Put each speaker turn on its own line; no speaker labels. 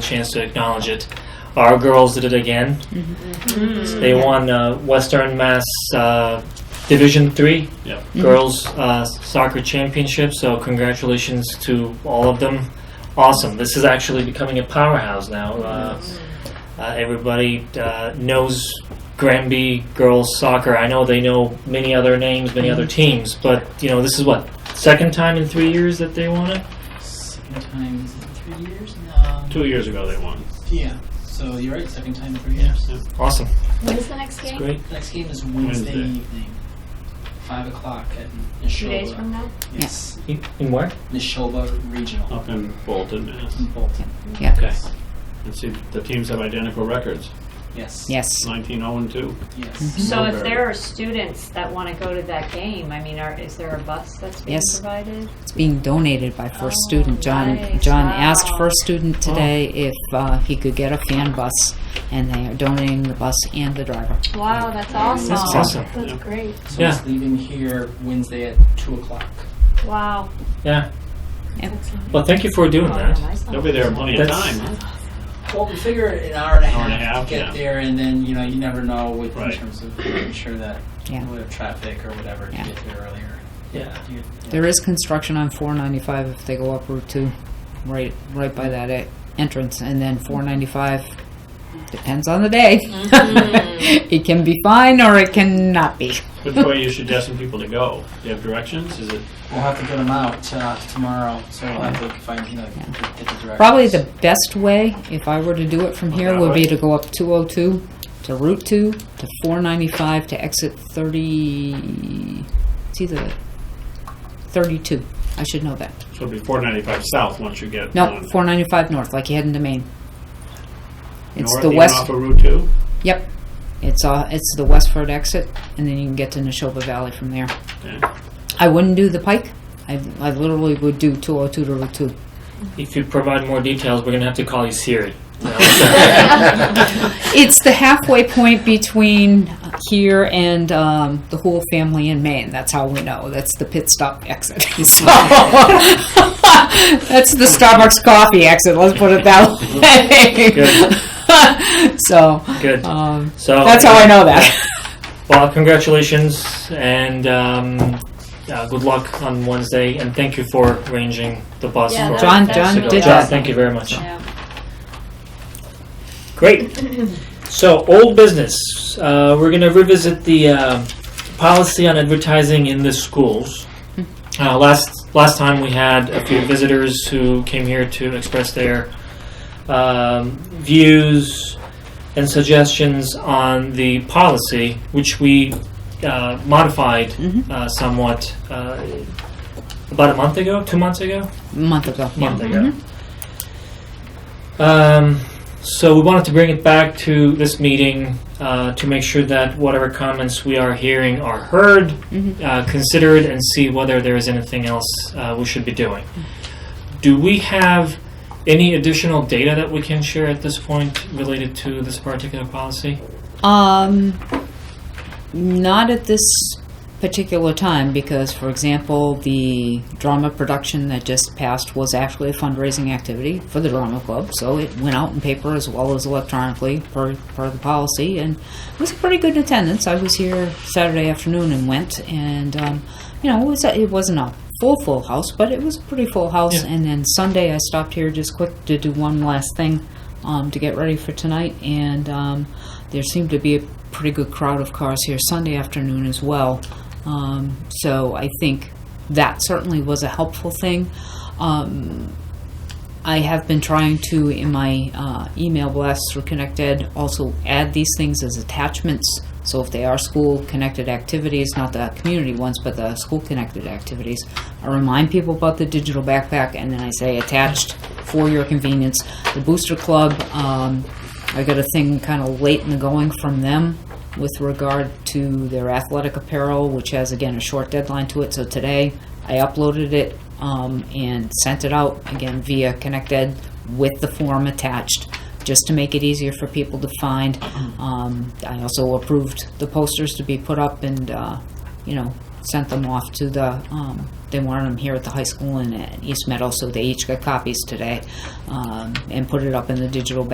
chance to acknowledge it. Our girls did it again.
Mm.
They won uh, Western Mass uh, Division Three
Yeah.
Girls uh, Soccer Championship. So congratulations to all of them. Awesome. This is actually becoming a powerhouse now. Uh, uh, everybody uh, knows Granby girls soccer. I know they know many other names, many other teams, but you know this is what second time in three years that they won it.
Second time, is it three years? No.
Two years ago they won.
Yeah, so you're right, second time in three years.
Awesome.
When is the next game?
Great.
Next game is Wednesday
Wednesday.
evening, five o'clock at
Two days
Neshoba.
from now?
Yes,
In in where?
Neshoba
Oh.
Regional
Up in Bolton, Mass.
in Bolton.
Yeah.
Okay. And see, the teams have identical records,
Yes.
Yes.
19-0 and 2.
Yes.
So if
Very.
there are students that want to go to that game, I mean, are, is there a bus that's being
Yes.
provided?
It's being donated by First
Oh,
Student. John
nice.
John
Wow.
asked First Student today if uh, he could get a fan bus, and they are donating the bus and the driver.
Wow, that's awesome.
This is awesome.
Yeah.
great.
So
Yeah.
it's leaving here Wednesday at two o'clock.
Wow. Oh,
Yeah. Well, thank you for doing that.
They'll be there in plenty of
That's-
time, huh?
Well, we figure an hour and a
Hour
half,
and a half,
to get
yeah.
there, and then you know you never know with,
Right.
in terms of making sure that
Yeah.
we have traffic or whatever
Yeah.
to get there earlier.
Yeah.
You-
There is construction on 495 if they go up Route 2, right right by that e- entrance, and then 495 depends on the day. it can be fine or it can not be.
Which way you suggesting people to go? Do you have directions? Is it,
We'll have to get them out uh, tomorrow, so we'll have to find you know get the directions.
Probably the best way, if I were to do it from here, would be to go up 202 to Route 2 to 495 to exit 30. It's either 32. I should know that.
so it'll be 495 south once you get
No,
on
495 north, like you head into Maine. It's
north,
the
even
west.
off of Route 2?
Yep. It's uh, it's the Westford exit, and then you can get to Neshoba Valley from there.
Okay.
I wouldn't do the Pike. I, I literally would do 202 to Route 2.
If you provide more details, we're gonna have to call you Siri.
It's the halfway point between here and um, the whole family in Maine. That's how we know. That's the pit stop exit. So, that's the Starbucks coffee exit. Let's put it that way. so
Good.
um,
So
that's how I know that.
Well, congratulations and um, uh, good luck on Wednesday. And thank you for arranging the bus
Yeah,
for
that-
John-
that's
John
really
did
John,
that.
Thank you very much.
Yeah.
Great. So, old business. Uh, we're going to revisit the um policy on advertising in the schools. Uh, last last time we had a few visitors who came here to express their um, views and suggestions on the policy, which we uh, modified
Mhm.
uh, somewhat uh, about a month ago, two months ago
A month ago. yeah.
month ago. Um, so we wanted to bring it back to this meeting uh, to make sure that whatever comments we are hearing are heard,
Mhm.
uh, considered, and see whether there is anything else uh, we should be doing. Do we have any additional data that we can share at this point related to this particular policy?
Um, not at this particular time because, for example, the drama production that just passed was actually a fundraising activity for the drama club, so it went out in paper as well as electronically per per the policy, and it was a pretty good attendance. I was here Saturday afternoon and went, and um, you know, it was a, it wasn't a full full house, but it was a pretty full house.
Yeah.
And then Sunday, I stopped here just quick to do one last thing um, to get ready for tonight, and um, there seemed to be a pretty good crowd of cars here Sunday afternoon as well. Um, so I think that certainly was a helpful thing. Um, I have been trying to, in my uh, email blasts through ConnectEd, also add these things as attachments. So if they are school-connected activities, not the community ones, but the school-connected activities, I remind people about the digital backpack, and then I say attached for your convenience. The Booster Club, um, I got a thing kind of late in the going from them with regard to their athletic apparel, which has, again, a short deadline to it. So today, I uploaded it um, and sent it out again via ConnectEd with the form attached, just to make it easier for people to find. Um, I also approved the posters to be put up and, uh, you know, sent them off to the, um, they wanted them here at the high school in uh, East Meadow, so they each got copies today um, and put it up in the digital